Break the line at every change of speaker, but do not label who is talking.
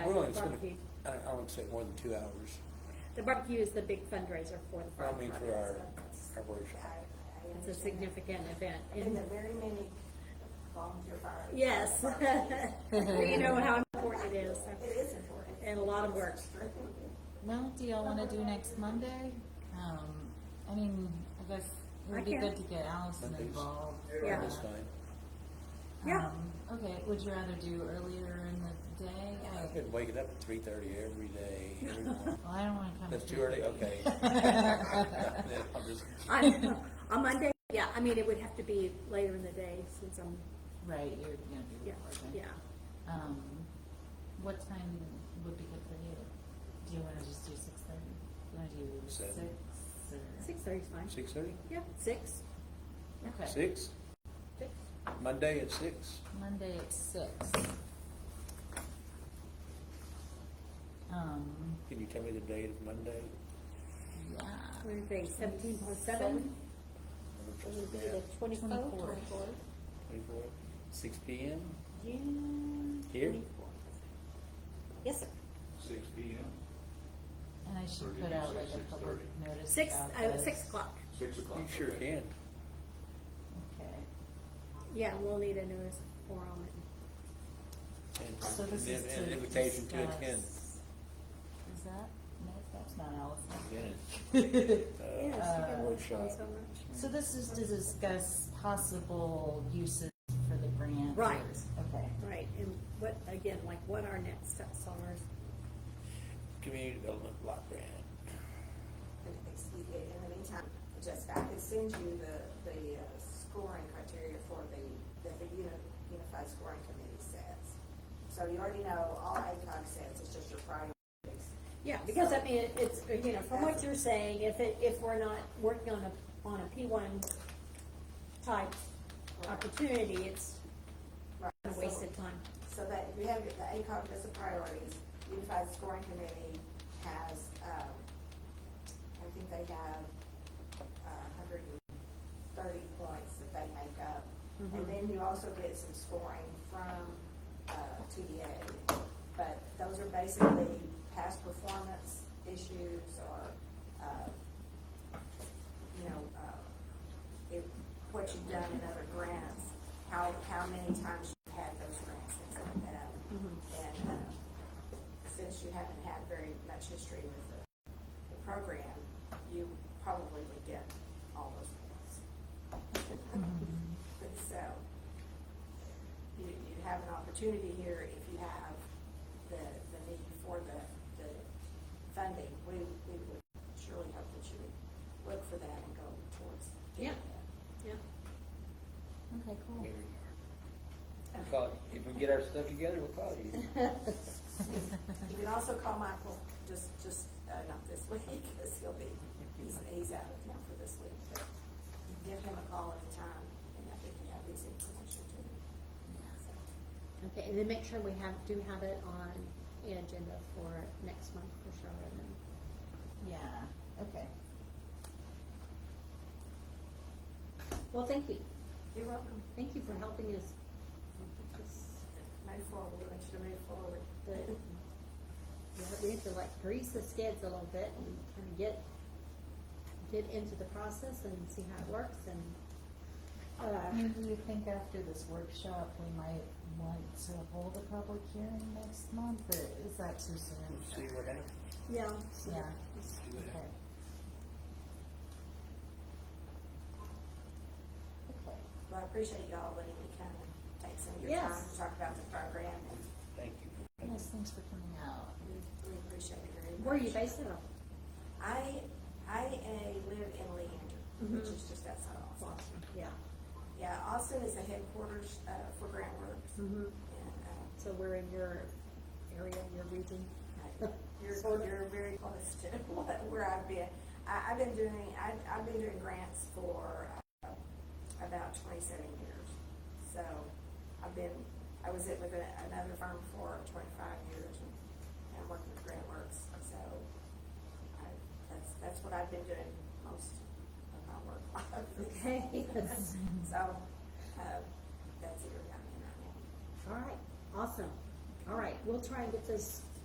feeling it's gonna,
barbecue.
I, I would say more than two hours.
The barbecue is the big fundraiser for the
I
farm.
mean, for our, our workshop.
It's a significant event.
And
And
the very many volunteer fire.
yes, you know how important it is.
It is important.
And a lot of work.
Well, do y'all wanna do next Monday? Um, I mean, I guess it
I
would be
can.
good to get Allison
Mondays.
involved.
Yeah.
That's fine.
Yeah.
Um, Okay, would you rather do earlier in the day?
I
Like-
could wake it up at three thirty every day, every morning.
Well, I don't wanna come.
That's
at
too early, okay.
3:30.
Then I'll just-
On, on Monday, yeah, I mean, it would have to be later in the day since I'm,
Right, you're gonna be
yeah,
working.
yeah.
Um, what time would be good for you? Do you wanna just do six thirty? You wanna do six
Seven.
or?
Six thirty's fine.
Six thirty?
Yeah, six.
Okay.
Six?
Six.
Monday at six?
Monday at six. Um,
Can you tell me the date of Monday?
yeah,
What do you think? Seventeen plus seven
Number
would be the twenty-fourth.
Twenty-fourth.
Twenty-four, six P M?
June
Here?
twenty-fourth. Yes, sir.
Six P M,
and I should
30,
put out like a
6,
public
30.
notice.
Six,
about
uh,
this.
six o'clock.
six o'clock.
You sure can.
Okay,
Yeah, we'll need a notice for all of it.
And-
so this
and-
is to
and Invitation to
discuss-
attend.
Is that, no, that's not
Yeah.
Allison.
Uh,
Yes, you can
Uh,
work on
workshop.
so much.
So this is to discuss possible uses for the grant.
Right.
Okay,
Right, and what, again, like what our next steps are.
Community Development Block Grant.
And expedient. In the meantime, Jessica, I can send you the, the uh, scoring criteria for the, that the uni- Unified Scoring Committee sets. So you already know all ACOG sets, it's just your priorities.
Yeah, because I mean, it- it's, you know, from what you're saying, if it, if we're not working on a, on a P one type opportunity, it's
Right.
a waste
So-
of time.
So that if you have the ACOG list of priorities, Unified Scoring Committee has, um, I think they have a hundred and thirty points that they make up. And then you also get some scoring from, uh, TDA. But those are basically past performance issues or, uh, you know, uh, if, what you've done in other grants, how, how many times you've had those grants, things like that. And, uh, since you haven't had very much history with the, the program, you probably would get all those points. But so, you, you have an opportunity here if you have the, the need for the, the funding. We, we would surely hope that you would look for that and go towards getting
Yeah.
that.
Yeah.
okay, cool.
We'll call it- If we get our stuff together, we'll call you.
You can also call Michael, just, just, uh, not this week, because he'll be, he's, he's out of town for this week, but you can give him a call at a time, and I think you have his information too. So,
Okay, and then make sure we have, do have it on the agenda for next month for sure. and then-
Yeah, okay.
Well, thank you.
You're welcome,
Thank you for helping us.
move forward, we want you to move forward.
But yeah, we have to like grease the skids a little bit and kind of get, get into the process and see how it works and,
I
uh,
mean, do you think after this workshop, we might want to hold a public hearing next month, or is that too
We'll
soon?
see what happens.
yeah.
Yeah,
See what
okay.
happens.
Okay.
Well, I appreciate y'all letting me kind of take some of your
Yes.
time to talk about the program, and
Thank you.
Nice, thanks for coming out.
we, we appreciate it very much.
Where are you based out of?
I, I, uh, live in Leander,
Mm-hmm.
which is just outside of Austin.
Yeah.
Yeah, Austin is the headquarters, uh, for Grant Works,
Mm-hmm.
and, uh,
So we're in your area, your region?
You're, you're very close to what- where I've been. I, I've been doing, I, I've been doing grants for uh, about twenty-seven years. So I've been, I was at with a- another firm for twenty-five years and, and worked with Grant Works. So I, that's, that's what I've been doing most of my work life.
Okay.
So, uh, that's the area I'm in right now.
All right, awesome. All right, we'll try and get this